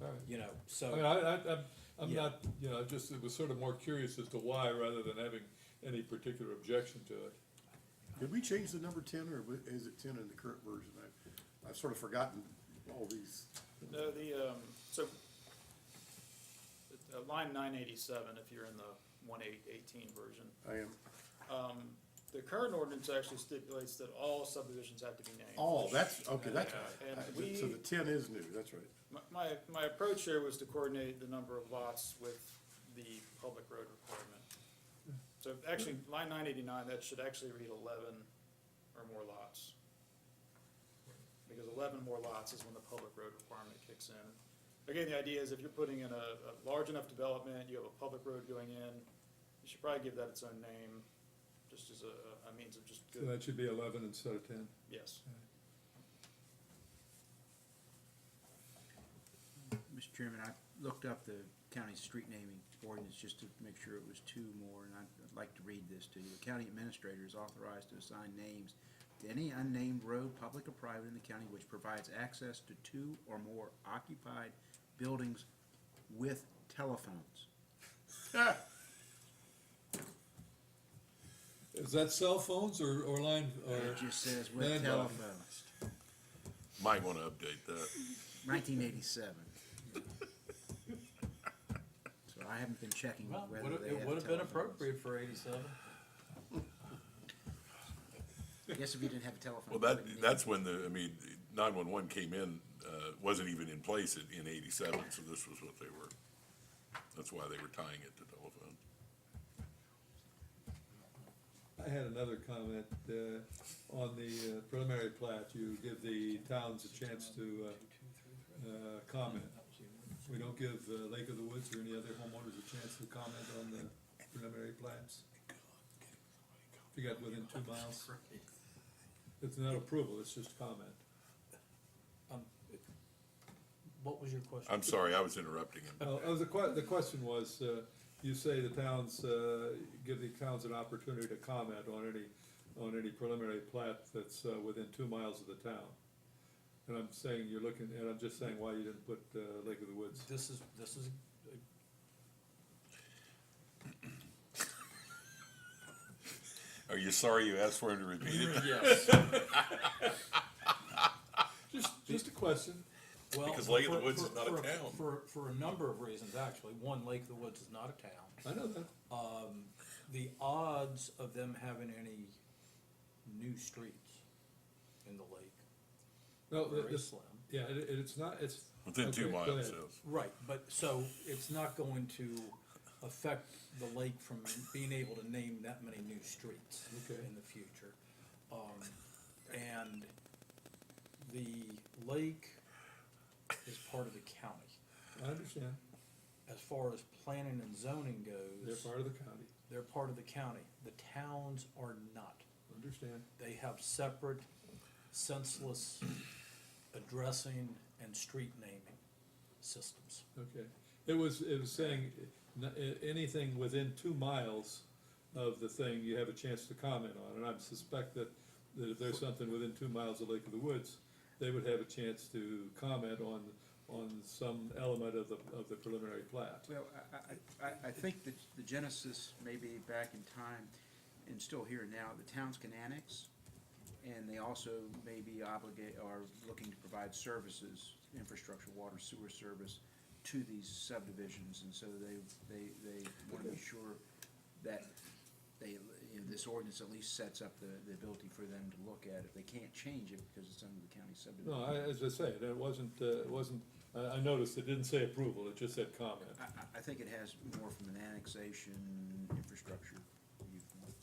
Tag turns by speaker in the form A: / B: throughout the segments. A: all right.
B: you know, so.
A: I mean, I, I, I'm, I'm
B: Yeah.
A: not, you know, I just, it was sort of more curious as to why, rather than having any particular objection to it.
C: Did we change the number ten, or wa- is it ten in the current version? I, I've sort of forgotten all these.
D: No, the, um, so, uh, line nine eighty-seven, if you're in the one eight eighteen version,
C: I am,
D: um, the current ordinance actually stipulates that all subdivisions have to be named.
C: oh, that's, okay, that's,
D: Yeah, and
C: I-
D: we-
C: so the ten is new, that's right.
D: My- My, my approach here was to coordinate the number of lots with the public road requirement. So actually, line nine eighty-nine, that should actually read eleven or more lots. Because eleven more lots is when the public road requirement kicks in. Again, the idea is if you're putting in a, a large enough development, you have a public road going in, you should probably give that its own name, just as a, a means of just
A: So
D: good,
A: that should be eleven instead of ten.
D: yes.
E: Mr. Chairman, I looked up the county's street naming ordinance just to make sure it was two more, and I'd I'd like to read this to you. The county administrator is authorized to assign names to any unnamed road, public or private, in the county which provides access to two or more occupied buildings with telephones.
A: Is that cell phones or, or line,
E: It
A: or,
E: just says
A: Man,
E: with
A: Bob.
E: telephones,
F: Might wanna update that.
E: nineteen eighty-seven. So I haven't been checking
B: Well,
E: whether they
B: would've-
E: have telephones.
B: It would have been appropriate for eighty-seven.
E: Yes, if you didn't have a telephone.
F: Well,
E: you
F: that,
E: wouldn't need it.
F: that's when the, I mean, nine-one-one came in, uh, wasn't even in place in, in eighty-seven, so this was what they were. That's why they were tying it to telephone.
A: I had another comment, uh, on the uh, preliminary plat, you give the towns a chance to, uh, uh, comment. We don't give uh, Lake of the Woods or any other homeowners a chance to comment on the preliminary plats. If you got within two miles, it's not approval, it's just comment.
B: Um, What was your question?
F: I'm sorry, I was interrupting him.
A: Oh, oh, the que- the question was, uh, you say the towns, uh, give the towns an opportunity to comment on any, on any preliminary plat that's, uh, within two miles of the town. And I'm saying, you're looking, and I'm just saying why you didn't put, uh, Lake of the Woods.
B: This is, this is,
F: Are you sorry you asked for him to repeat it?
B: yes.
A: Just, just a question.
B: Well,
F: Because Lake of the
B: for-
F: Woods
B: for-
F: is not a
B: for
F: town.
B: For, for a number of reasons, actually. One, Lake of the Woods is not a town.
A: I know that.
B: the odds of them having any new streets in the lake
A: No,
B: are
A: the-
B: very
A: this,
B: slim.
A: yeah, it, it- it's not, it's.
F: Within two
A: okay, go
F: miles,
A: ahead.
F: yes.
B: Right, but so it's not going to affect the lake from being able to name that many new streets
A: Okay.
B: in the future. Um, and the lake is part of the county.
A: I understand.
B: As far as planning and zoning goes,
A: They're part of the county.
B: they're part of the county. The towns are not.
A: Understand.
B: They have separate senseless addressing and street naming systems.
A: Okay. It was, it was saying, n- a- anything within two miles of the thing, you have a chance to comment on. And I suspect that, that if there's something within two miles of Lake of the Woods, they would have a chance to comment on, on some element of the, of the preliminary plat.
E: Well, I- I, I, I think that the genesis may be back in time and still here now, the towns can annex. And they also may be obligate, are looking to provide services, infrastructure, water, sewer service to these subdivisions. And so they, they, they want to be sure that they, you know, this ordinance at least sets up the, the ability for them to look at it. They can't change it because it's under the county subdivision.
A: No, I, as I say, it wasn't, uh, it wasn't, I, I noticed it didn't say approval, it just said comment.
E: I, I, I think it has more from an annexation, infrastructure viewpoint.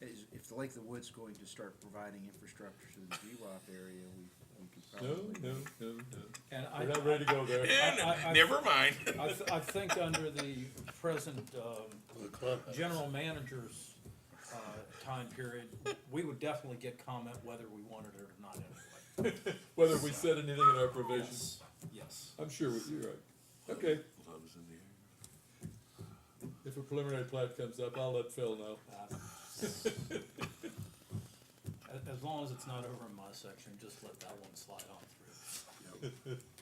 E: Is, if the Lake of the Woods going to start providing infrastructure to the GWAP area, we, we could
A: No,
E: probably.
A: no, no, no.
B: And
A: We're
B: I,
A: not ready to go there.
B: I- I-
F: Never mind.
B: I, th- I think under the present, um, general manager's, uh, time period, we would definitely get comment whether we wanted it or not anyway.
A: Whether we said anything in our provisions,
B: Yes, yes.
A: I'm sure we- you're right. Okay,
F: Love's in the air.
A: if a preliminary plat comes up, I'll let Phil know.
B: Uh, As, as long as it's not over in my section, just let that one slide on through.